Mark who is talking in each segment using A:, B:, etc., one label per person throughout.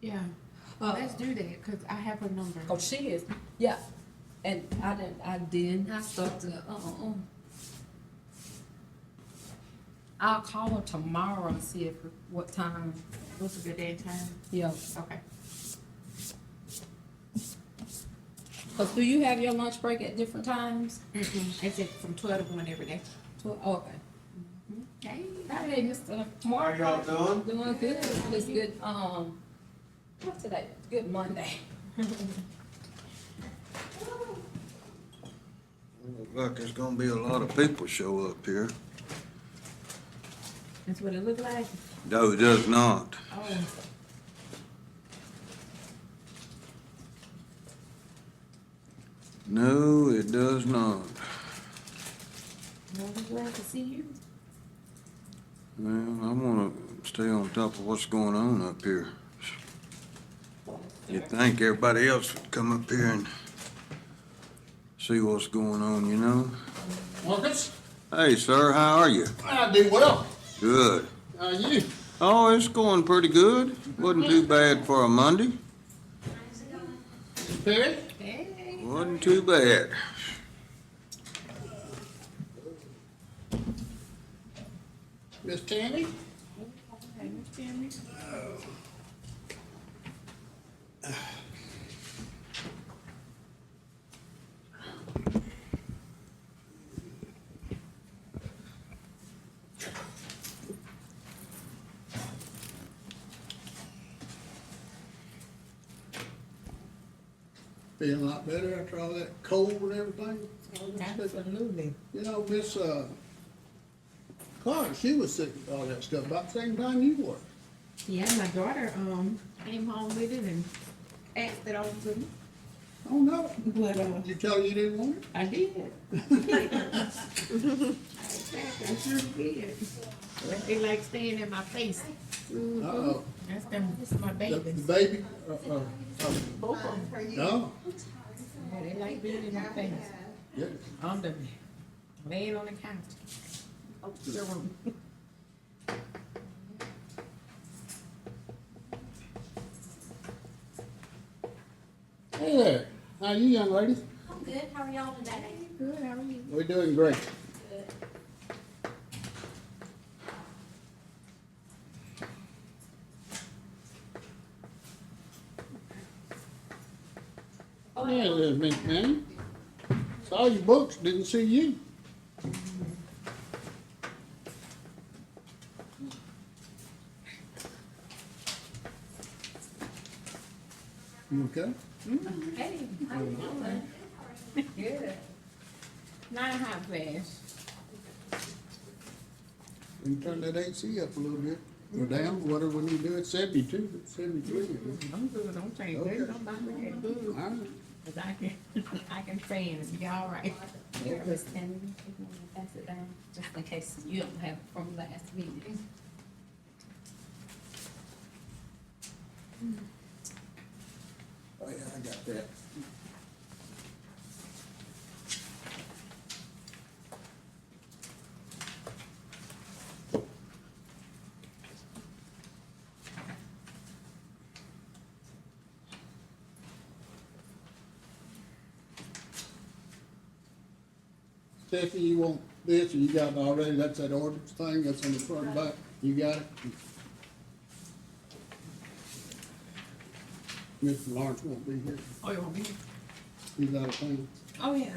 A: Yeah,
B: Uh,
A: let's do that, cause I have her number.
B: Oh, she is, yeah, and I didn't, I didn't, I start to, uh, uh, uh. I'll call her tomorrow and see if, what time,
A: What's a good day and time?
B: yeah,
A: Okay.
B: cause do you have your lunch break at different times?
A: Mm-mm, It's at from twelve to one every day.
B: Tw- Okay.
A: Hey,
B: Hey, Mr.
C: How
B: Mark.
C: y'all doing?
B: uh, Doing good, it's good, um, what's today, good Monday.
C: Look like there's gonna be a lot of people show up here.
A: that's what it look like.
C: No, it does not.
A: Oh,
C: No, it does not.
A: well, we're glad to see you.
C: Man, I wanna stay on top of what's going on up here. You'd think everybody else would come up here and see what's going on, you know?
D: Marcus,
C: Hey, sir, how are you?
D: I do well.
C: Good.
D: How are you?
C: Oh, it's going pretty good. Wasn't too bad for a Monday.
D: Perry?
A: Hey.
C: Wasn't too bad.
D: Miss Tammy?
A: Hey, Miss Tammy.
D: Feeling a lot better after all that cold and everything? All that stuff.
A: Absolutely.
D: You know, Miss, uh, Clark, she was sick with all that stuff about the same time you were.
A: Yeah, my daughter, um, came home with it and asked it all to me,
D: Oh, no.
A: but, uh,
D: Did you tell her you didn't want it?
A: I did. I sure did. They like staying in my face.
D: Uh-oh.
A: That's them, this is my
D: The
A: babies.
D: the baby, uh, uh, uh,
A: Both of them,
D: no.
A: yeah, they like being in my face.
D: Yeah.
A: I'm the man on the couch. Oh, the room.
D: Hey there. How are you, young lady?
E: I'm good. How are y'all today?
A: Good, how are you?
D: We're doing great. Oh, Yeah, there's Miss Manny. Saw your books, didn't see you. You okay?
A: Hey,
E: How you doing?
A: good. Not a hot flash.
D: We can turn that AC up a little bit, or down, whatever we need to do, it's seventy-two, it's seventy-three.
A: I'm good, I'm trying, good,
D: Okay.
A: I'm about to get
D: All
A: good.
D: right.
A: Cause I can, I can fan and be all right.
B: Here, Miss Tammy, if you wanna pass it down, just in case you don't have it from last meeting.
D: Oh, yeah, I got that. Stephanie, you want this, or you got it already, that's that ordinance thing, that's on the front back, you got it? Mr. Lawrence won't be here,
A: Oh, you want me?
D: he's out of town.
A: Oh, yeah.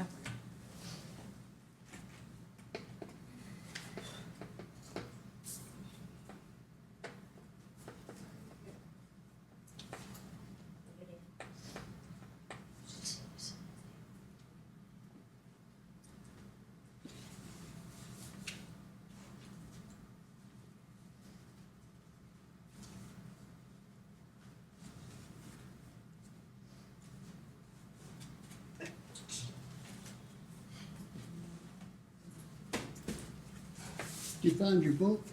D: Did you find your book?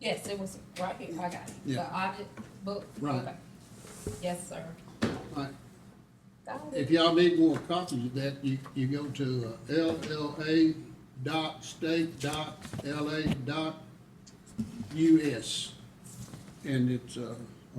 B: Yes, it was right here, I got it, the
D: Yeah.
B: audit book.
D: Right.
B: Okay. Yes, sir.
D: Alright,
B: Got it.
D: if y'all need more copies of that, you, you go to uh, LLA dot state dot LA dot US. And it's, uh,